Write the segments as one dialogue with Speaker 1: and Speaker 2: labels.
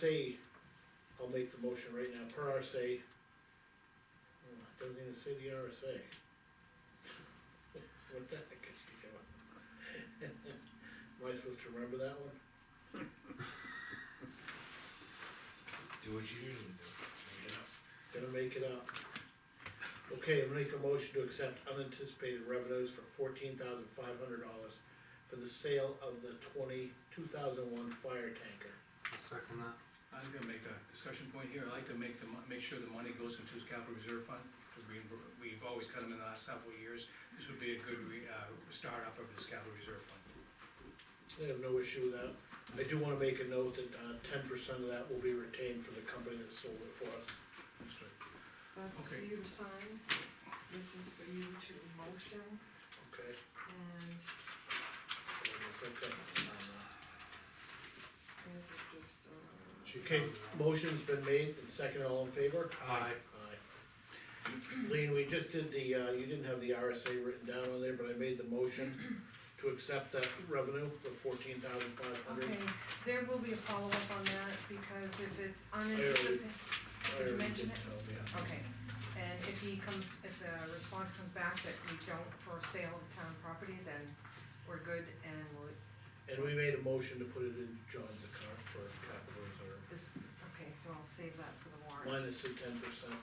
Speaker 1: say, I'll make the motion right now, per RSA. Oh, it Doesn't even say the RSA. What the heck is she doing? Am I supposed to remember that one?
Speaker 2: Do what you usually do.
Speaker 1: Gonna make it up. Okay, I'll make a motion to accept unanticipated revenues for fourteen thousand five hundred dollars for the sale of the twenty, two thousand one fire tanker.
Speaker 2: I'll second that.
Speaker 3: I'm gonna make a discussion point here, I like to make the, mon- make sure the money goes into his capital reserve fund, because we, we've always cut him in the last several years. This would be a good re, uh, startup of his capital reserve fund.
Speaker 1: I have no issue with that. I do wanna make a note that, uh, ten percent of that will be retained for the company that sold it for us.
Speaker 4: That's for
Speaker 3: Okay.
Speaker 4: you to sign, this is for you to motion,
Speaker 1: Okay.
Speaker 4: and
Speaker 1: Okay.
Speaker 4: this is just, uh,
Speaker 1: Okay, motion's been made and second all in favor?
Speaker 2: Aye.
Speaker 1: Aye. Lean, we just did the, uh, you didn't have the RSA written down on there, but I made the motion to accept that revenue, the fourteen thousand five hundred.
Speaker 4: okay, there will be a follow-up on that, because if it's
Speaker 1: already-
Speaker 4: unanticipated,
Speaker 1: I
Speaker 4: did you
Speaker 1: already
Speaker 4: mention
Speaker 1: did
Speaker 4: it?
Speaker 1: tell them, yeah.
Speaker 4: Okay, and if he comes, if the response comes back that we don't for sale of town property, then we're good, and we're,
Speaker 1: And we made a motion to put it in John's account for capital reserve,
Speaker 4: this, okay, so I'll save that for the warrant.
Speaker 1: minus the ten percent.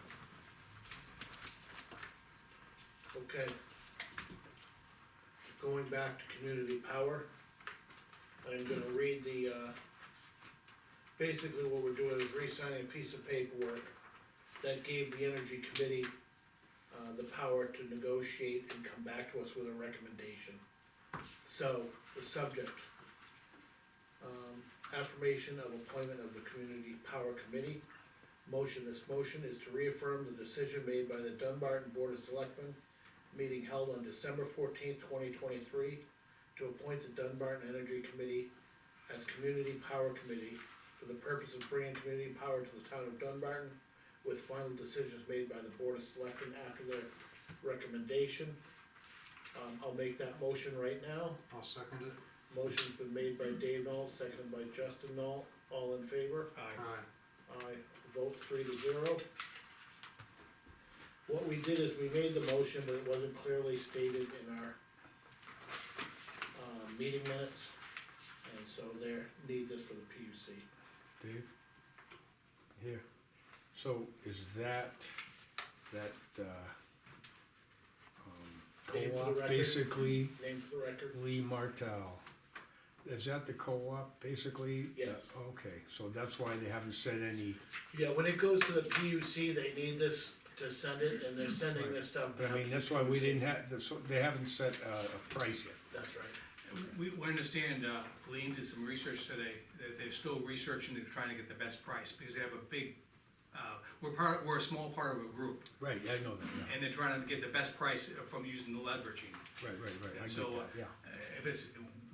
Speaker 1: Okay. Going back to community power, I'm gonna read the, uh, basically what we're doing is re-signing a piece of paperwork that gave the energy committee, uh, the power to negotiate and come back to us with a recommendation. So, the subject, um, affirmation of appointment of the community power committee. Motion, this motion is to reaffirm the decision made by the Dunbarton Board of Selectmen, meeting held on December fourteenth, twenty twenty-three, to appoint the Dunbarton Energy Committee as Community Power Committee for the purpose of bringing community power to the town of Dunbarton, with final decisions made by the Board of Selectmen after their recommendation. Um, I'll make that motion right now.
Speaker 2: I'll second it.
Speaker 1: Motion's been made by Dave Knoll, seconded by Justin Knoll, all in favor?
Speaker 3: Aye.
Speaker 2: Aye.
Speaker 1: I vote three to zero. What we did is we made the motion, but it wasn't clearly stated in our uh, meeting minutes, and so there, need this for the PUC.
Speaker 5: Dave? Here. So is that, that, uh, um,
Speaker 1: Name for the
Speaker 5: co-op,
Speaker 1: record.
Speaker 5: basically
Speaker 1: Name for the record,
Speaker 5: Lee Martell? Is that the co-op, basically?
Speaker 1: Yes.
Speaker 5: Uh, Okay, so that's why they haven't said any,
Speaker 1: yeah, when it goes to the PUC, they need this to send it, and they're sending this stuff
Speaker 5: but
Speaker 1: back.
Speaker 5: I mean, that's why we didn't have, that's- they haven't set a, a price yet.
Speaker 1: That's right,
Speaker 3: We, we understand, uh, Lean did some research today, that they're still researching and trying to get the best price, because they have a big, uh, we're part, we're a small part of a group,
Speaker 5: Right, I know that, yeah.
Speaker 3: and they're trying to get the best price from using the leveraging.
Speaker 5: right, right, right,
Speaker 3: And
Speaker 5: I get
Speaker 3: so,
Speaker 5: that, yeah.
Speaker 3: uh, if it's,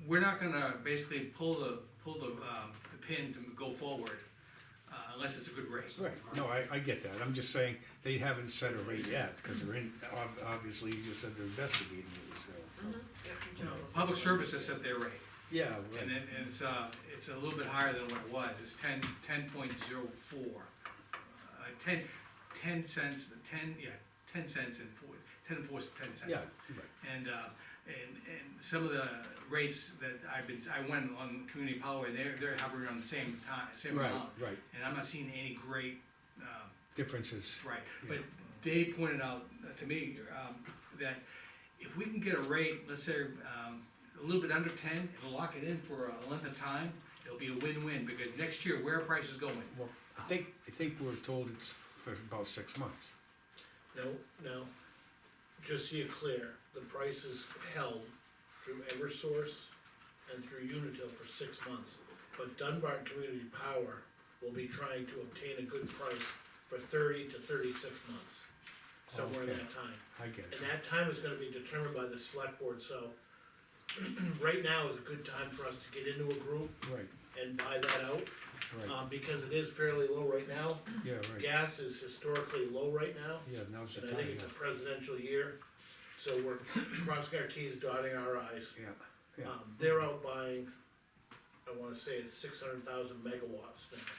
Speaker 3: we're not gonna basically pull the, pull the, um, the pin to go forward, uh, unless it's a good race.
Speaker 5: Right, no, I, I get that, I'm just saying, they haven't set a rate yet, because they're in, ob- obviously, you just said they're investigating it, so. so-
Speaker 4: Yeah, you
Speaker 3: You know,
Speaker 4: chose.
Speaker 3: Public services set their rate,
Speaker 5: Yeah,
Speaker 3: and
Speaker 5: right,
Speaker 3: it, and it's, uh, it's a little bit higher than what it was, it's ten, ten point zero four. Uh, ten, ten cents, ten, yeah, ten cents and four, ten fours, ten
Speaker 5: yeah,
Speaker 3: cents.
Speaker 5: right.
Speaker 3: And, uh, and, and some of the rates that I've been, I went on community power, and they're, they're hovering around the same time, same
Speaker 5: Right,
Speaker 3: amount.
Speaker 5: right.
Speaker 3: And I'm not seeing any great, um,
Speaker 5: differences.
Speaker 3: right, but Dave pointed out to me, um, that if we can get a rate, let's say, um, a little bit under ten, it'll lock it in for a length of time, it'll be a win-win, because next year, where are prices going?
Speaker 5: Well, I think, I think we're told it's for about six months.
Speaker 1: no, no, just so you're clear, the price is held through Eversource and through Unitil for six months. But Dunbarton Community Power will be trying to obtain a good price for thirty to thirty-six months, somewhere in
Speaker 5: Okay.
Speaker 1: that time.
Speaker 5: I get
Speaker 1: And
Speaker 5: it.
Speaker 1: that time is gonna be determined by the select board, so right now is a good time for us to get into a group
Speaker 5: Right,
Speaker 1: and buy that out.
Speaker 5: right,
Speaker 1: Um, because it is fairly low right now,
Speaker 5: yeah, right.
Speaker 1: gas is historically low right now.
Speaker 5: Yeah, now's the
Speaker 1: And I
Speaker 5: time,
Speaker 1: think it's a
Speaker 5: yeah.
Speaker 1: presidential year, so we're crossing our Ts, dotting our Is.
Speaker 5: yeah, yeah.
Speaker 1: Um, they're out buying, I wanna say it's six hundred thousand megawatts now.